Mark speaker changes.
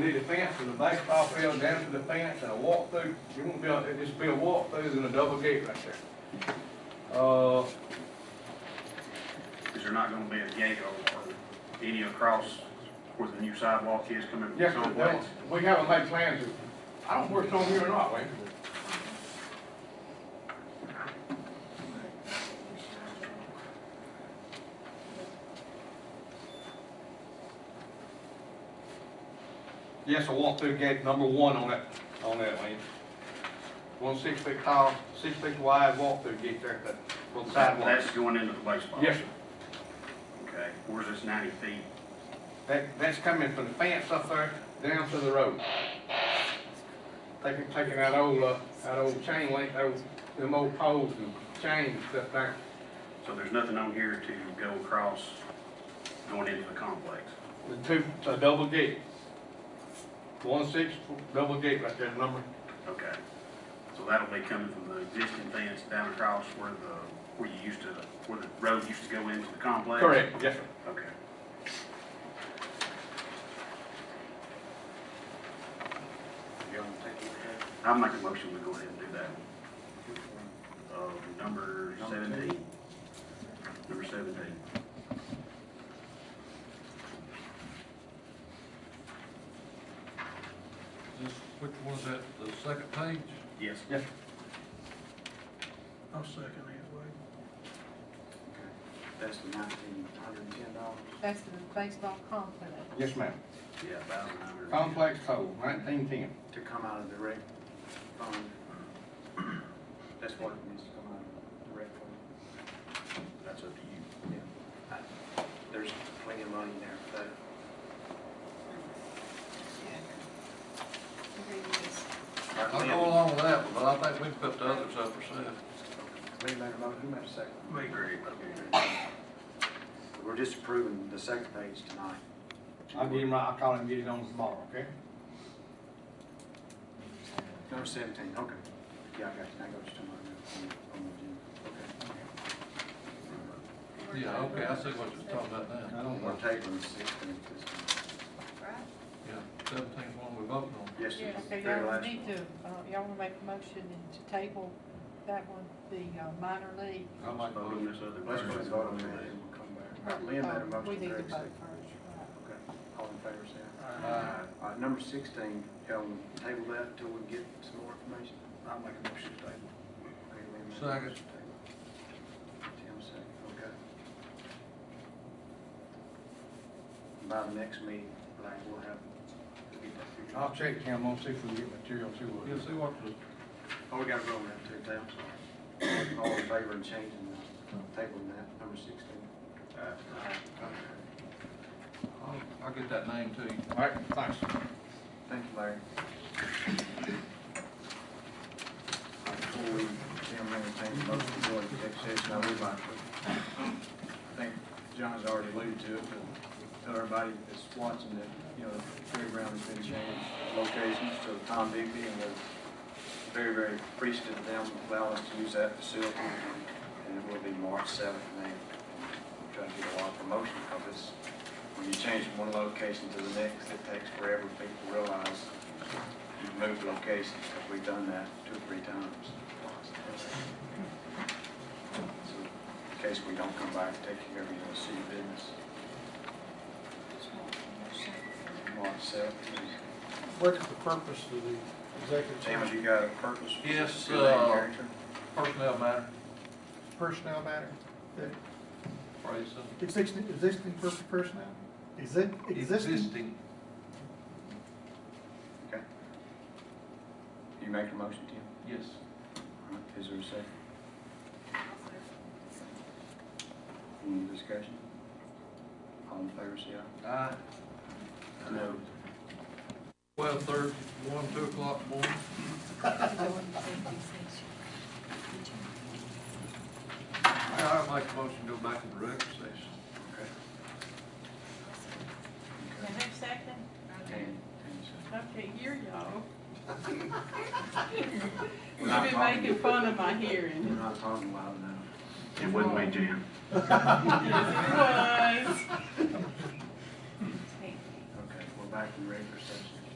Speaker 1: did the fence from the baseball field down to the fence and a walk through. You won't be, able it'd just be a walk through and a double gate right there. Uh,
Speaker 2: Is there not gonna be a gate or, or any across where the new sidewalk is coming from
Speaker 1: yes, sir,
Speaker 2: someplace?
Speaker 1: that- we haven't made plans. I don't know if it's on here or not, Wayne. Yes, a walk-through gate number one on that, on that lane. One six feet tall, six feet wide walk-through gate there at the, for the sidewalk.
Speaker 2: That's going into the baseball?
Speaker 1: Yes, sir.
Speaker 2: Okay, where's this ninety feet?
Speaker 1: That, that's coming from the fence up there down to the road. Taking, taking that old, uh, that old chain link, those, them old poles and chains up there.
Speaker 2: So there's nothing on here to go across going into the complex?
Speaker 1: The two, a double gate. One six, double gate right there, number.
Speaker 2: Okay. So that'll be coming from the existing fence down across where the, where you used to, where the road used to go into the complex?
Speaker 1: Correct, yes, sir.
Speaker 2: Okay. Y'all wanna take a look at it? I'll make a motion, we go ahead and do that. Uh, number seventeen. Number seventeen.
Speaker 3: This, which one's that, the second page?
Speaker 2: Yes.
Speaker 1: Yes,
Speaker 4: I'll second that, Wade.
Speaker 2: That's the nineteen hundred and ten dollars?
Speaker 5: That's the baseball complex.
Speaker 1: yes, ma'am.
Speaker 2: Yeah, thousand nine hundred.
Speaker 1: Complex toll, nineteen ten.
Speaker 6: to come out of the rec fund. That's what it needs to come out of the rec fund.
Speaker 2: That's up to you.
Speaker 6: There's plenty of money there for that.
Speaker 3: I'll go along with that one, but I think we can put the others up for sale.
Speaker 6: Wait a minute, Mo, who made a second?
Speaker 2: Me, Greg.
Speaker 6: We're just approving the second page tonight.
Speaker 1: I'll get him right, I'll call him, and get it on tomorrow, okay?
Speaker 6: Number seventeen, okay. Yeah, I got you, I got you tomorrow. on- on the agenda.
Speaker 3: Yeah, okay, I see what you're talking about
Speaker 1: I
Speaker 3: now.
Speaker 1: don't
Speaker 6: We're
Speaker 1: know.
Speaker 6: tabling sixteen at this time.
Speaker 3: Yeah, seventeen's one we voted on.
Speaker 6: Yes,
Speaker 5: Yeah,
Speaker 6: it's the
Speaker 5: so
Speaker 6: very
Speaker 5: y'all
Speaker 6: last
Speaker 5: need
Speaker 6: one.
Speaker 5: to, uh, y'all wanna make a motion to table that one, the uh, minor league.
Speaker 3: I might
Speaker 2: Vote on this other.
Speaker 6: Let's go ahead and
Speaker 2: version.
Speaker 6: vote on that and we'll come back. Lynn made a
Speaker 5: Uh,
Speaker 6: motion.
Speaker 5: We need to
Speaker 6: Greg
Speaker 5: vote
Speaker 6: seconded.
Speaker 5: first, Uh,
Speaker 6: Okay, all in favor, say aye.
Speaker 3: Aye.
Speaker 6: All right, number sixteen, y'all wanna table that until we get some more information?
Speaker 2: I'll make a motion to table.
Speaker 6: Okay, we have a
Speaker 3: Second.
Speaker 6: motion to table. Tim, second, okay. By the next meeting, like, we'll have, we'll get that figured
Speaker 1: I'll
Speaker 6: out.
Speaker 1: check him, I'll see if we can get material to
Speaker 3: Yeah,
Speaker 1: it.
Speaker 3: see what the,
Speaker 6: Oh, we gotta go on that too, Tim, sorry. All in favor of changing the table on that, number sixteen?
Speaker 3: I'll, I'll get that name to you.
Speaker 1: All right, thanks.
Speaker 6: Thank you, Larry. Before we, Tim, entertain the motion to go into executive session, I would like to, I think John's already alluded to it, but tell everybody that's watching that, you know, the fairground has been changed locations to Tom Bigby, and we're very, very appreciative of them allowing us to use that facility, and it will be March seventh, and they try to get a lot of promotion, because it's, when you change from one location to the next, it takes forever for people to realize you've moved locations, because we've done that two or three times. So, In case we don't come back, take care of your city business. March seventh.
Speaker 7: What's the purpose of the executive
Speaker 6: Tim, have
Speaker 7: session?
Speaker 6: you got a purpose?
Speaker 3: Yes,
Speaker 6: Good name,
Speaker 3: uh,
Speaker 6: character?
Speaker 3: Personnel matter,
Speaker 7: Personnel matter? Uh,
Speaker 3: phrase, uh,
Speaker 7: Existing, existing per- personnel? Is it existing?
Speaker 3: existing.
Speaker 6: Okay. You make a motion, Tim?
Speaker 3: Yes.
Speaker 6: All right, Is there a second? Any discussion? All in favor, say aye.
Speaker 3: Aye.
Speaker 6: No.
Speaker 3: Twelve thirty, one, two o'clock morning. I'll make a motion to go back to the regular session.
Speaker 6: Okay.
Speaker 5: right? Who's second?
Speaker 6: Dan, Dan said.
Speaker 5: Okay, here y'all.
Speaker 6: We're not
Speaker 5: You've been
Speaker 6: talking-
Speaker 5: making fun of my
Speaker 6: We're
Speaker 5: hearing.
Speaker 6: not talking loud enough.
Speaker 2: It wouldn't be Jim.
Speaker 5: Yes, it was.
Speaker 6: Okay, we're back in regular